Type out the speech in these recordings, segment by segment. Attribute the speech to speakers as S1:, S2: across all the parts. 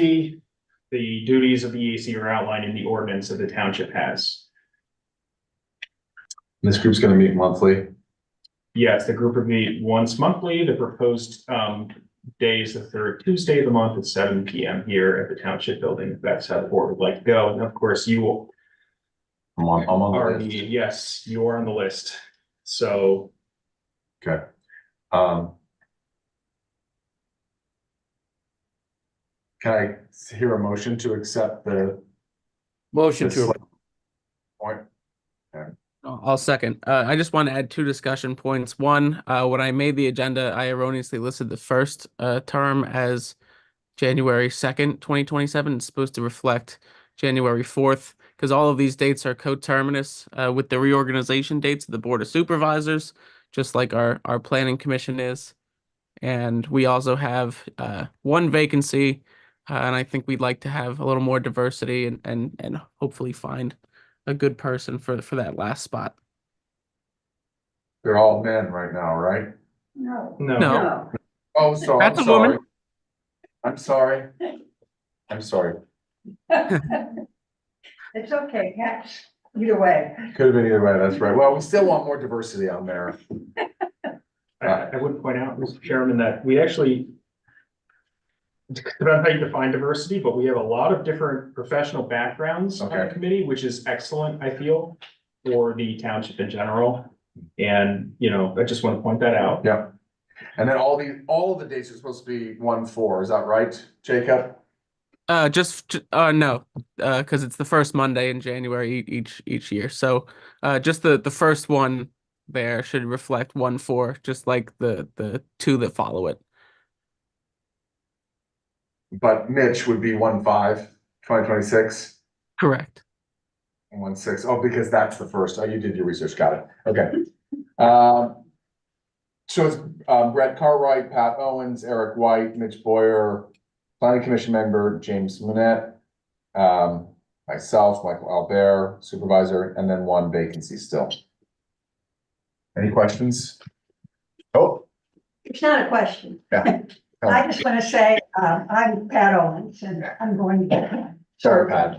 S1: EAC. The duties of the EAC are outlined in the ordinance that the township has.
S2: This group's gonna meet monthly.
S1: Yes, the group would meet once monthly. The proposed um day is the third Tuesday of the month at seven P M here at the township building. if That's how the board would like to go. And of course, you will
S2: I'm on, I'm
S1: are,
S2: on the list.
S1: yes, you are on the list. So
S2: Okay. Um. Can I hear a motion to accept the?
S3: Motion
S2: the
S3: to,
S2: select Point,
S3: I'll second. Uh, I just want to add two discussion points. One, uh, when I made the agenda, I erroneously listed the first, uh, term as January second, twenty twenty-seven. It's supposed to reflect January fourth, because all of these dates are coterminous, uh, with the reorganization dates of the Board of Supervisors, just like our, our planning commission is. And we also have, uh, one vacancy, uh, and I think we'd like to have a little more diversity and, and, and hopefully find a good person for for that last spot.
S2: they're all men right now, right?
S4: No.
S1: no,
S3: No.
S2: Oh, so I'm
S3: That's a woman.
S2: sorry. I'm sorry. I'm sorry.
S4: It's okay, catch, either way.
S2: Could have been either way, that's right. Well, we still want more diversity on there.
S1: I I would point out, Mr. Chairman, that we actually depends how you define diversity, but we have a lot of different professional backgrounds on the
S2: Okay.
S1: committee, which is excellent, I feel, for the township in general. And, you know, I just want to point that out.
S2: Yeah. And then all the, all of the dates are supposed to be one four, is that right, Jacob?
S3: Uh, just j- uh no, uh, because it's the first Monday in January e- each each year. So, uh, just the the first one there should reflect one four, just like the the two that follow it.
S2: But Mitch would be one five, twenty twenty six.
S3: Correct.
S2: And One six, oh, because that's the first, oh, you did your research, got it, okay. Um, So it's uh, Brett Cartwright, Pat Owens, Eric White, Mitch Boyer, planning commission member James Manette, um, myself, Michael Albert, supervisor, and then one vacancy still. Any questions? Oh,
S4: It's not a question.
S2: Yeah.
S4: I just want to say, um, I'm Pat Owens and I'm going to get.
S2: Sorry, Pat.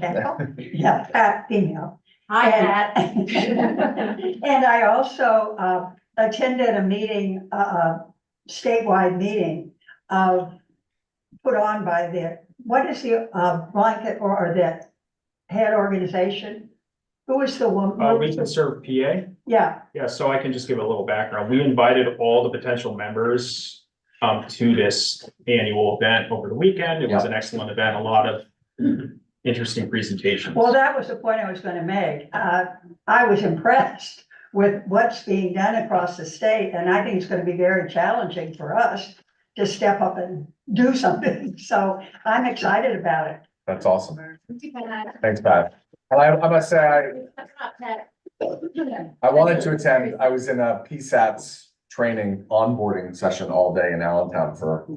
S4: Yeah, Pat, female.
S5: Hi,
S4: And- And I also, uh, attended a meeting, uh, statewide meeting of, put on by the, what is the, uh, blanket or or the head organization? Who is the woman?
S1: Uh, we can serve PA.
S4: Yeah,
S1: Yeah, so I can just give a little background. We invited all the potential members um to this annual event over the weekend. It was an excellent event, a lot of interesting presentations.
S4: Well, that was the point I was gonna make. Uh, I was impressed with what's being done across the state, and I think it's gonna be very challenging for us to step up and do something. So I'm excited about it.
S2: that's awesome, thanks, Pat. And I, I must say, I, I wanted to attend, I was in a PSATs training onboarding session all day in Allentown for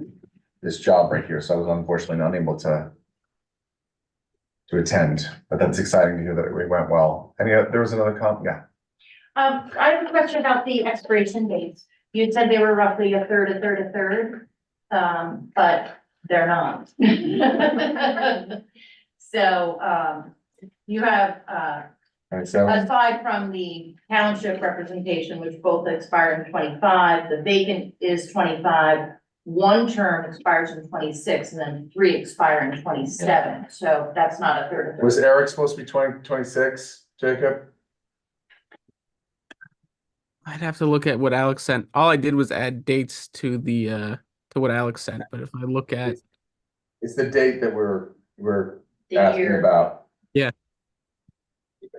S2: this job right here, so I was unfortunately not able to to attend, but that's exciting to hear that it went well. Any, oth- there was another comp, yeah,
S5: Um, I have a question about the expiration dates. You had said they were roughly a third, a third, a third, um, but they're not. So, um, you have, uh,
S2: and so,
S5: aside from the township representation, which both expire in twenty-five, the vacant is twenty-five. One term expires in twenty-six and then three expire in twenty-seven, so that's not a third, a third.
S2: was Eric supposed to be twenty, twenty-six, Jacob?
S3: I'd have to look at what Alex sent. All I did was add dates to the uh to what Alex sent. But if I look at
S2: It's the date that we're, we're
S5: The
S2: asking
S5: year.
S2: about.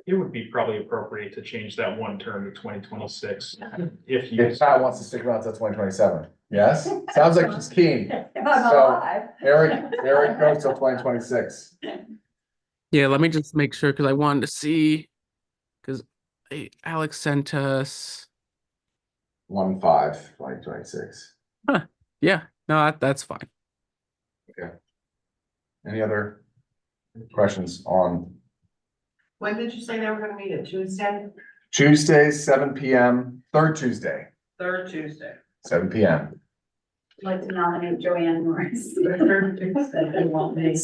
S1: It would be probably appropriate to change that one term to twenty twenty-six if you.
S2: If Pat wants to stick around till twenty twenty-seven, yes? Sounds like she's keen.
S4: If I'm
S2: So-
S4: alive,
S2: Eric, Eric goes till twenty twenty-six.
S3: yeah, let me just make sure because I wanted to see because Alex sent us.
S2: one five, twenty twenty six.
S3: Yeah, no, that, that's fine.
S2: Any other questions on
S6: When did you say they were gonna meet it? Tuesday?
S2: Tuesdays, seven P M, third Tuesday,
S6: Third Tuesday.
S2: seven P M?
S5: Like to nominate Joanne Morris.
S6: Third Tuesday.